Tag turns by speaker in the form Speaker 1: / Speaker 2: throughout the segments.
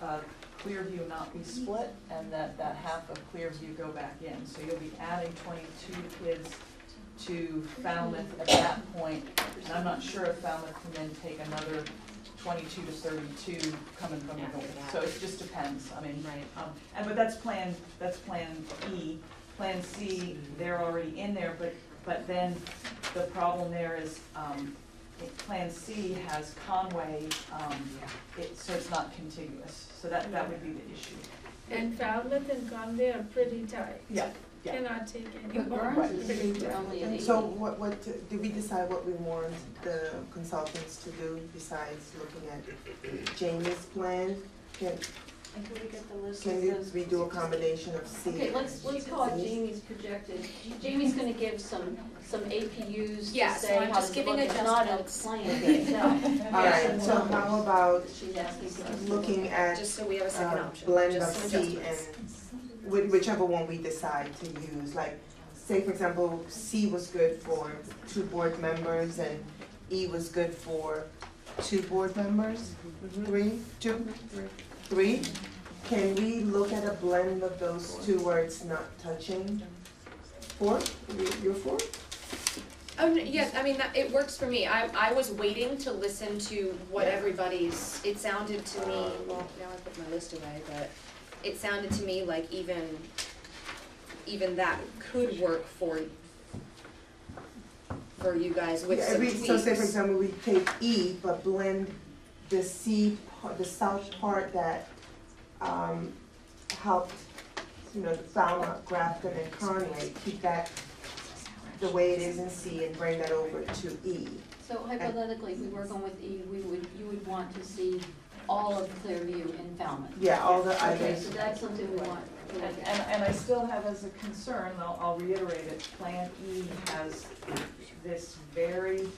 Speaker 1: uh, Clearview not be split, and that that half of Clearview go back in. So you'll be adding twenty-two kids to Falmouth at that point, and I'm not sure if Falmouth can then take another twenty-two to thirty-two coming from the
Speaker 2: After
Speaker 1: north.
Speaker 2: that.
Speaker 1: So it just depends, I mean,
Speaker 2: Right.
Speaker 1: um, and, but that's plan, that's plan E. Plan C, they're already in there, but, but then the problem there is, um, it- Plan C has Conway, um, it, so it's not contiguous, so that, that would be the issue.
Speaker 3: And Falmouth and Conway are pretty tight.
Speaker 4: Yeah, yeah.
Speaker 3: Cannot take any
Speaker 5: But
Speaker 3: more.
Speaker 5: Burns is pretty only at eighty.
Speaker 4: So what, what, did we decide what we want the consultants to do besides looking at Jamie's plan? Can,
Speaker 5: And could we get the list
Speaker 4: can
Speaker 5: of
Speaker 4: you-
Speaker 5: those?
Speaker 4: we do a combination of C?
Speaker 5: Okay, let's, let's call it Jamie's projected, Jamie's gonna give some, some APUs
Speaker 6: Yeah,
Speaker 5: to
Speaker 6: so
Speaker 5: say
Speaker 6: I'm
Speaker 5: how
Speaker 6: just
Speaker 5: to
Speaker 6: giving
Speaker 5: look, it's not a
Speaker 6: adjustments.
Speaker 5: plan
Speaker 1: Um,
Speaker 5: itself.
Speaker 4: All right, so how about
Speaker 5: She's asking for us to look
Speaker 4: looking
Speaker 5: at.
Speaker 4: at
Speaker 6: Just so we have a second
Speaker 4: uh,
Speaker 6: option,
Speaker 4: blend of
Speaker 6: just some
Speaker 4: C
Speaker 6: adjustments.
Speaker 4: and whi- whichever one we decide to use, like, say for example, C was good for two board members and E was good for two board members,
Speaker 6: Mm-hmm.
Speaker 4: three, two, three? Can we look at a blend of those two where it's not touching? Four, You- you're four?
Speaker 6: Oh, no, yeah, I mean, that, it works for me, I, I was waiting to listen to what everybody's, it sounded to me, Um, well, now I put my list away, but it sounded to me like even, even that could work for, for you guys with
Speaker 4: Yeah,
Speaker 6: some
Speaker 4: every-
Speaker 6: tweaks.
Speaker 4: So say for example, we take E, but blend the C, par- the south part that, um, helped, you know, the Falmouth, Grafton and Conway, keep that the way it is in C and bring that over to E.
Speaker 5: So hypothetically, if we work on with E, we would, you would want to see all of Clearview in Falmouth.
Speaker 4: Yeah, all the
Speaker 5: Okay,
Speaker 4: others,
Speaker 5: so that's something we want to look
Speaker 1: And,
Speaker 5: at.
Speaker 1: and, and I still have as a concern, I'll, I'll reiterate it, Plan E has this very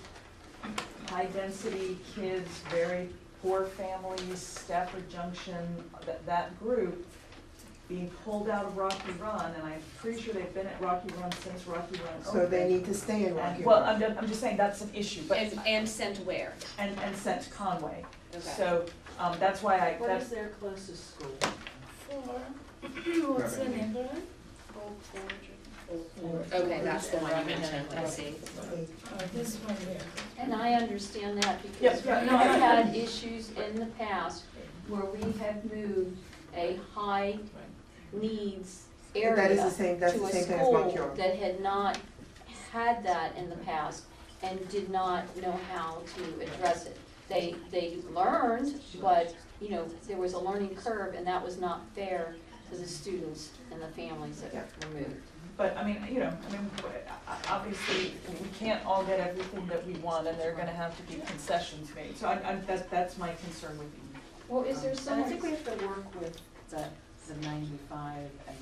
Speaker 1: high-density kids, very poor families, Stafford Junction, that, that group being pulled out of Rocky Run, and I'm pretty sure they've been at Rocky Run since Rocky Run opened.
Speaker 4: so they need to stay in Rocky
Speaker 1: And,
Speaker 4: Run.
Speaker 1: well, I'm, ju- I'm just saying, that's an issue, but,
Speaker 6: And, and sent where,
Speaker 1: and, and sent Conway.
Speaker 6: okay.
Speaker 1: So, um, that's why I,
Speaker 5: What is
Speaker 1: that's,
Speaker 5: their closest school?
Speaker 3: Four. What's the number?
Speaker 6: Okay, that's the one you mentioned, I see.
Speaker 3: Oh, this one here.
Speaker 5: And I understand that because
Speaker 1: Yeah,
Speaker 5: we've
Speaker 1: no, I-
Speaker 5: had issues in the past where we have moved a high needs area
Speaker 4: That is the same, that's the same thing as
Speaker 5: to a school
Speaker 4: Montcure.
Speaker 5: that had not had that in the past and did not know how to address it. They, they learned, but, you know, there was a learning curve and that was not fair to the students and the families that were moved.
Speaker 1: But I mean, you know, I mean, w- o- obviously, we can't all get everything that we want and there are gonna have to be concessions made. So I, I, that's, that's my concern with you.
Speaker 5: Well, is there
Speaker 7: And
Speaker 5: some?
Speaker 7: I think we have to work with the, the ninety-five and,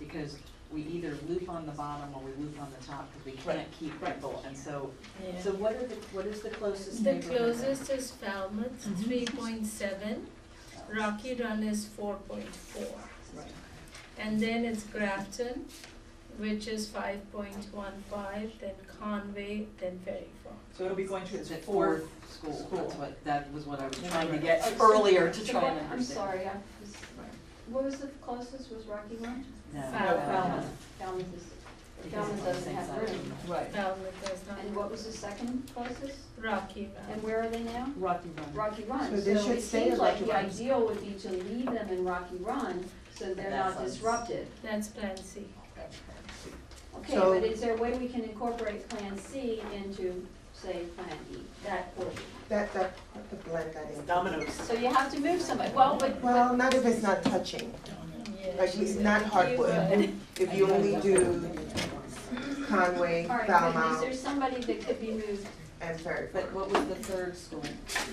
Speaker 7: because we either loop on the bottom or we loop on the top, because we can't keep people, and so,
Speaker 3: Yeah.
Speaker 7: so what are the, what is the closest
Speaker 3: The
Speaker 7: neighborhood?
Speaker 3: closest is Falmouth,
Speaker 5: Mm-hmm.
Speaker 3: three point seven. Rocky Run is four point four. And then it's Grafton, which is five point one five, then Conway, then Ferry Farm.
Speaker 1: So it'll be going to its
Speaker 7: Is it
Speaker 1: fourth,
Speaker 7: fourth school,
Speaker 1: school.
Speaker 7: that's what, that was what I was
Speaker 1: Yeah,
Speaker 7: trying to
Speaker 1: right.
Speaker 7: get
Speaker 5: Oh, so-
Speaker 7: earlier to
Speaker 5: so
Speaker 7: try
Speaker 5: what-
Speaker 7: and understand.
Speaker 5: I'm sorry, I was, what was the closest, was Rocky Run?
Speaker 7: No, no,
Speaker 1: no,
Speaker 7: no,
Speaker 1: Falmouth.
Speaker 5: Falmouth is,
Speaker 7: Uh, because
Speaker 5: Falmouth
Speaker 7: it's on the
Speaker 5: doesn't
Speaker 7: same
Speaker 5: have
Speaker 7: side of the
Speaker 5: room.
Speaker 1: right,
Speaker 3: Falmouth is not.
Speaker 5: And what was the second closest?
Speaker 3: Rocky
Speaker 5: And
Speaker 3: Run.
Speaker 5: where are they now?
Speaker 1: Rocky Run.
Speaker 5: Rocky Run.
Speaker 4: So they should stay in Rocky Run.
Speaker 5: it seems like the ideal would be to leave them in Rocky Run so they're
Speaker 7: That
Speaker 5: not
Speaker 7: sounds-
Speaker 5: disrupted.
Speaker 3: That's Plan C.
Speaker 5: Okay,
Speaker 4: So-
Speaker 5: but is there a way we can incorporate Plan C into, say, Plan E, that order?
Speaker 4: That, that, the blend that in.
Speaker 5: So you have to move somebody, well, but,
Speaker 4: Well,
Speaker 5: but,
Speaker 4: not if it's not touching,
Speaker 3: Yeah,
Speaker 4: like,
Speaker 3: she
Speaker 4: it's
Speaker 3: said
Speaker 4: not
Speaker 3: the
Speaker 4: hardwood.
Speaker 3: keyword.
Speaker 4: If you only do Conway,
Speaker 5: all right, but is
Speaker 4: Falmouth,
Speaker 5: there somebody that could be moved?
Speaker 4: and Ferry Farm.
Speaker 2: But what was the third school?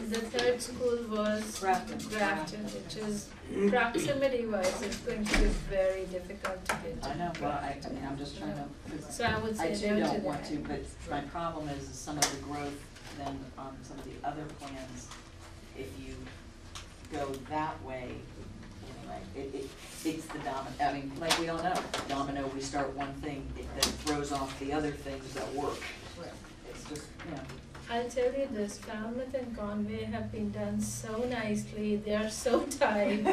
Speaker 3: The third school was
Speaker 1: Grafton.
Speaker 3: Grafton, which is
Speaker 4: Mm-hmm.
Speaker 3: proximity wise, it's going to be very difficult to get
Speaker 7: I
Speaker 3: to.
Speaker 7: know, well, I, I mean, I'm just trying to, 'cause
Speaker 3: So I would
Speaker 7: I
Speaker 3: say
Speaker 7: too
Speaker 3: no to
Speaker 7: don't want to,
Speaker 3: that.
Speaker 7: but my problem is is some of the growth then on some of the other plans, if you go that way, anyway, it, it, it's the domino, I mean, like, we all know, domino, we start one thing, it then throws off the other things that work. It's just, you know,
Speaker 3: I'll tell you this, Falmouth and Conway have been done so nicely, they are so tight.